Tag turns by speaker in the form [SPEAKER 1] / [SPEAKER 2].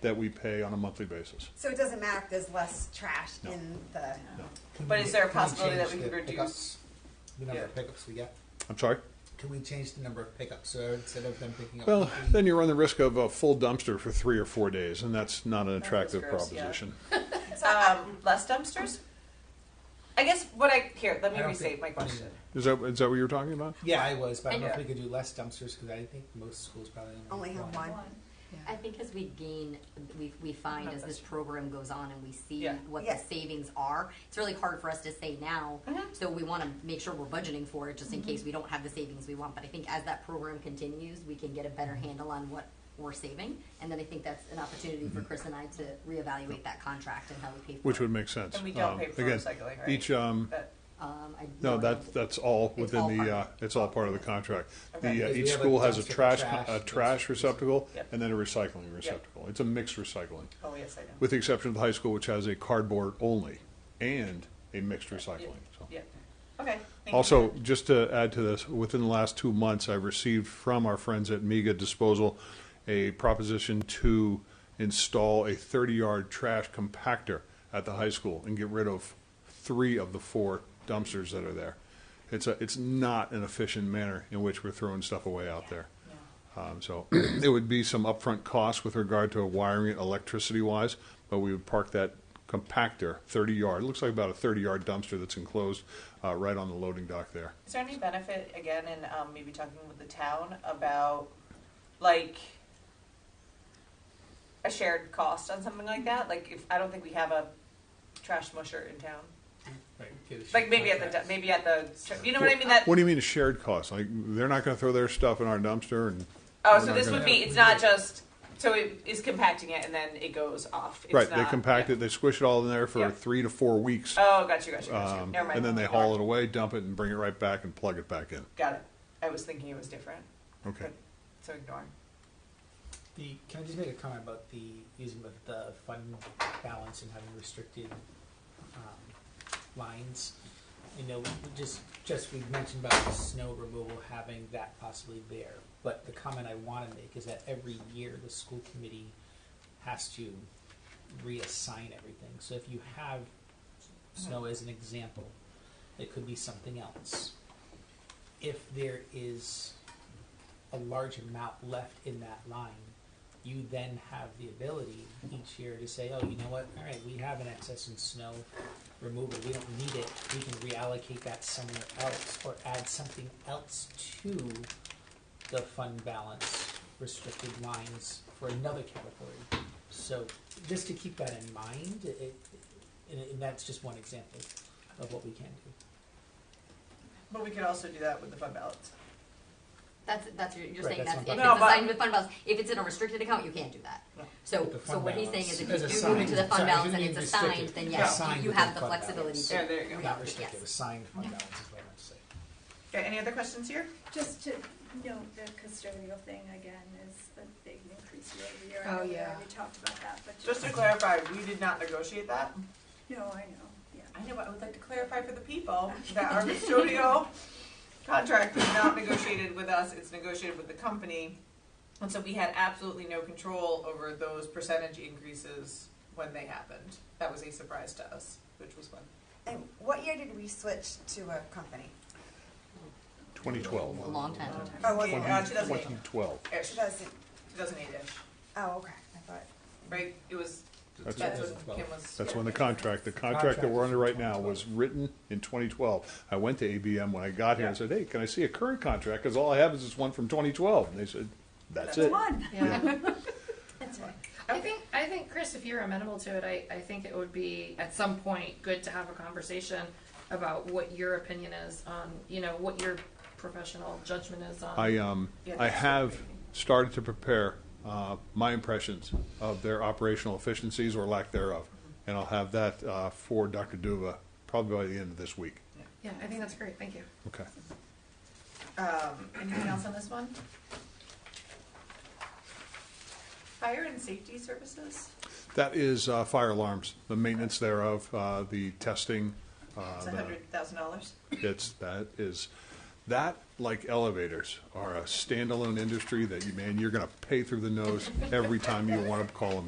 [SPEAKER 1] that we pay on a monthly basis.
[SPEAKER 2] So it doesn't matter if there's less trash
[SPEAKER 1] No.
[SPEAKER 2] in the,
[SPEAKER 3] But is there a
[SPEAKER 4] Can we
[SPEAKER 3] possibility that we
[SPEAKER 4] change
[SPEAKER 3] could
[SPEAKER 4] the
[SPEAKER 3] reduce?
[SPEAKER 4] pickups? The number of
[SPEAKER 3] Yeah.
[SPEAKER 4] pickups we get?
[SPEAKER 1] I'm sorry?
[SPEAKER 4] Can we change the number of pickups, so instead of them picking up?
[SPEAKER 1] Well,
[SPEAKER 4] weekly-
[SPEAKER 1] then you run the risk of a full dumpster for three or four days, and that's not an
[SPEAKER 3] That is
[SPEAKER 1] attractive
[SPEAKER 3] gross, yeah.
[SPEAKER 1] proposition.
[SPEAKER 3] Um, less dumpsters? I guess what I, here, let
[SPEAKER 4] I
[SPEAKER 3] me
[SPEAKER 4] don't
[SPEAKER 3] restate
[SPEAKER 4] think-
[SPEAKER 3] my question.
[SPEAKER 1] Is that, is that what you're talking about?
[SPEAKER 4] Yeah, I was, but I don't know if
[SPEAKER 3] Yeah.
[SPEAKER 4] we could do less dumpsters, because I think most schools probably
[SPEAKER 2] only have one.
[SPEAKER 5] I think as we gain, we, we find
[SPEAKER 3] No
[SPEAKER 5] as this
[SPEAKER 3] question.
[SPEAKER 5] program goes on and we see
[SPEAKER 3] Yeah.
[SPEAKER 5] what
[SPEAKER 2] Yeah.
[SPEAKER 5] the savings are, it's really hard for us to say now.
[SPEAKER 1] Mm-hmm.
[SPEAKER 5] So we want to make sure we're budgeting for it just in case we don't have the savings we want. But I think as that program continues, we can get a
[SPEAKER 1] Mm-hmm.
[SPEAKER 5] better handle on what we're saving. And then I think that's an opportunity for Chris and I to reevaluate that contract and how we pay for it.
[SPEAKER 1] Mm-hmm. Which would make sense.
[SPEAKER 3] And we don't
[SPEAKER 1] Um,
[SPEAKER 3] pay for
[SPEAKER 1] again,
[SPEAKER 3] recycling, right?
[SPEAKER 1] Each, um,
[SPEAKER 3] But-
[SPEAKER 5] Um, I-
[SPEAKER 1] no, that, that's all
[SPEAKER 5] It's all
[SPEAKER 1] within
[SPEAKER 5] part
[SPEAKER 1] the,
[SPEAKER 5] of
[SPEAKER 1] uh, it's all part of the contract.
[SPEAKER 3] Okay.
[SPEAKER 1] The, uh,
[SPEAKER 4] Because
[SPEAKER 1] each
[SPEAKER 4] we have a
[SPEAKER 1] school has a
[SPEAKER 4] dumpster for
[SPEAKER 1] trash, con-
[SPEAKER 4] trash,
[SPEAKER 1] a
[SPEAKER 4] that's-
[SPEAKER 1] trash receptacle,
[SPEAKER 3] Yep.
[SPEAKER 1] and then a recycling receptacle. It's a mixed recycling,
[SPEAKER 3] Oh, yes, I know.
[SPEAKER 1] with the exception of the high school, which has a cardboard only and a mixed recycling, so.
[SPEAKER 3] Yeah, okay. thank you.
[SPEAKER 1] Also, just to add to this, within the last two months, I've received from our friends at Miga Disposal a proposition to install a 30-yard trash compactor at the high school and get rid of three of the four dumpsters that are there. It's a, it's not an efficient manner in which we're throwing stuff away out there. Um, so there would be some upfront costs with regard to wiring it electricity-wise, but we would park that compactor 30-yard, it looks like about a 30-yard dumpster that's enclosed uh, right on the loading dock there.
[SPEAKER 3] Is there any benefit, again, in um, maybe talking with the town about, like, a shared cost on something like that? Like, if, I don't think we have a trash musher in town.
[SPEAKER 4] Right, get a
[SPEAKER 3] Like, maybe
[SPEAKER 4] sheet
[SPEAKER 3] at
[SPEAKER 4] of
[SPEAKER 3] the,
[SPEAKER 4] contracts.
[SPEAKER 3] maybe at the, you know what I mean? That,
[SPEAKER 1] What do you mean a shared cost? Like, they're not gonna throw their stuff in our dumpster and,
[SPEAKER 3] oh,
[SPEAKER 1] we're
[SPEAKER 3] so
[SPEAKER 1] not
[SPEAKER 3] this
[SPEAKER 1] gonna-
[SPEAKER 3] would be, it's not just, so it is compacting it and then it goes off. It's
[SPEAKER 1] right, they
[SPEAKER 3] not-
[SPEAKER 1] compact
[SPEAKER 3] yeah.
[SPEAKER 1] it, they squish it all in there for
[SPEAKER 3] Yeah.
[SPEAKER 1] three to four weeks.
[SPEAKER 3] Oh, gotcha, gotcha, gotcha.
[SPEAKER 1] um,
[SPEAKER 3] Never mind.
[SPEAKER 1] And then they haul it away, dump it, and bring it right back and plug it back in.
[SPEAKER 3] Got it. I was thinking it was different,
[SPEAKER 1] Okay.
[SPEAKER 3] but, so ignore.
[SPEAKER 4] The, can I just make a comment about the, using the, the fund balance and having restricted, um, lines? You know, we just, just we mentioned about the snow removal, having that possibly there, but the comment I wanna make is that every year, the school committee has to reassign everything, so if you have snow as an example, it could be something else. If there is a large amount left in that line, you then have the ability each year to say, oh, you know what, all right, we have an excess in snow removal, we don't need it, we can reallocate that somewhere else, or add something else to the fund balance restricted lines for another category. So, just to keep that in mind, it- it, and, and that's just one example of what we can do.
[SPEAKER 3] But we could also do that with the fund balance.
[SPEAKER 5] That's, that's, you're
[SPEAKER 4] Right,
[SPEAKER 5] saying
[SPEAKER 4] that's
[SPEAKER 5] that's,
[SPEAKER 3] bad.
[SPEAKER 4] not
[SPEAKER 5] if it's
[SPEAKER 3] No, but-
[SPEAKER 5] assigned with fund balance, if it's in a restricted account, you can't do that.
[SPEAKER 3] No.
[SPEAKER 5] So,
[SPEAKER 4] With the
[SPEAKER 5] so
[SPEAKER 4] fund
[SPEAKER 5] what he's saying
[SPEAKER 4] balance.
[SPEAKER 5] is if
[SPEAKER 4] As
[SPEAKER 5] you do move
[SPEAKER 4] assigned.
[SPEAKER 5] into the
[SPEAKER 4] Sorry, I
[SPEAKER 5] fund balance and
[SPEAKER 4] didn't
[SPEAKER 5] it's
[SPEAKER 4] mean restricted.
[SPEAKER 5] assigned, then
[SPEAKER 4] Yeah.
[SPEAKER 5] yes,
[SPEAKER 4] Assigned
[SPEAKER 5] you
[SPEAKER 4] within
[SPEAKER 5] have the
[SPEAKER 4] fund balance.
[SPEAKER 5] flexibility
[SPEAKER 3] Yeah,
[SPEAKER 5] to
[SPEAKER 3] there you go.
[SPEAKER 4] Not
[SPEAKER 5] reallocate,
[SPEAKER 4] restricted,
[SPEAKER 5] yes.
[SPEAKER 4] assigned fund balance is what I meant to say.
[SPEAKER 3] Okay, any other questions here?
[SPEAKER 6] Just to note, the custodial thing again is a big increase year
[SPEAKER 2] Oh,
[SPEAKER 6] over year. I know we
[SPEAKER 2] yeah.
[SPEAKER 6] already talked about that, but
[SPEAKER 3] Just
[SPEAKER 6] just,
[SPEAKER 3] to clarify, we did not negotiate that.
[SPEAKER 6] no, I know, yeah.
[SPEAKER 3] I know, but I would like to clarify for the people that our custodial contract was not negotiated with us, it's negotiated with the company. And so we had absolutely no control over those percentage increases when they happened. That was a surprise to us, which was fun.
[SPEAKER 2] and what year did we switch to a company?
[SPEAKER 1] Twenty twelve.
[SPEAKER 5] A long time.
[SPEAKER 2] Oh, was it?
[SPEAKER 3] Yeah, 2008.
[SPEAKER 1] Twenty twelve.
[SPEAKER 3] Ish,
[SPEAKER 2] 2000
[SPEAKER 3] 2008-ish,
[SPEAKER 2] oh, okay, I thought,
[SPEAKER 3] right? It was,
[SPEAKER 1] That's-
[SPEAKER 3] that's what
[SPEAKER 4] 2012.
[SPEAKER 3] Kim was.
[SPEAKER 1] That's when the contract, the contract that we're under right now was written in twenty twelve. I went to ABM when I got here and said, hey, can I see a current contract? Cause all I have is this one from twenty twelve. And they said, that's it.
[SPEAKER 6] One,
[SPEAKER 1] Yeah.
[SPEAKER 6] that's right.
[SPEAKER 7] I think I think Chris, if you're amenable to it, I, I think it would be at some point good to have a conversation about what your opinion is on you know what your professional judgment is on.
[SPEAKER 1] I um
[SPEAKER 3] Yeah,
[SPEAKER 1] I
[SPEAKER 3] that's
[SPEAKER 1] have
[SPEAKER 3] great.
[SPEAKER 1] started to prepare uh, my impressions of their operational efficiencies or lack thereof, and I'll have that uh, for Dr. Duva probably by the end of this week.
[SPEAKER 7] yeah, I think that's great. Thank you.
[SPEAKER 1] Okay.
[SPEAKER 3] Um, anything else on this one? Fire and safety services?
[SPEAKER 1] That is uh, fire alarms, the maintenance thereof, uh, the testing. Uh,
[SPEAKER 3] It's
[SPEAKER 1] the-
[SPEAKER 3] a hundred thousand dollars.
[SPEAKER 1] it's that is that like elevators are a standalone industry that you man you're going to pay through the nose every time you want to call them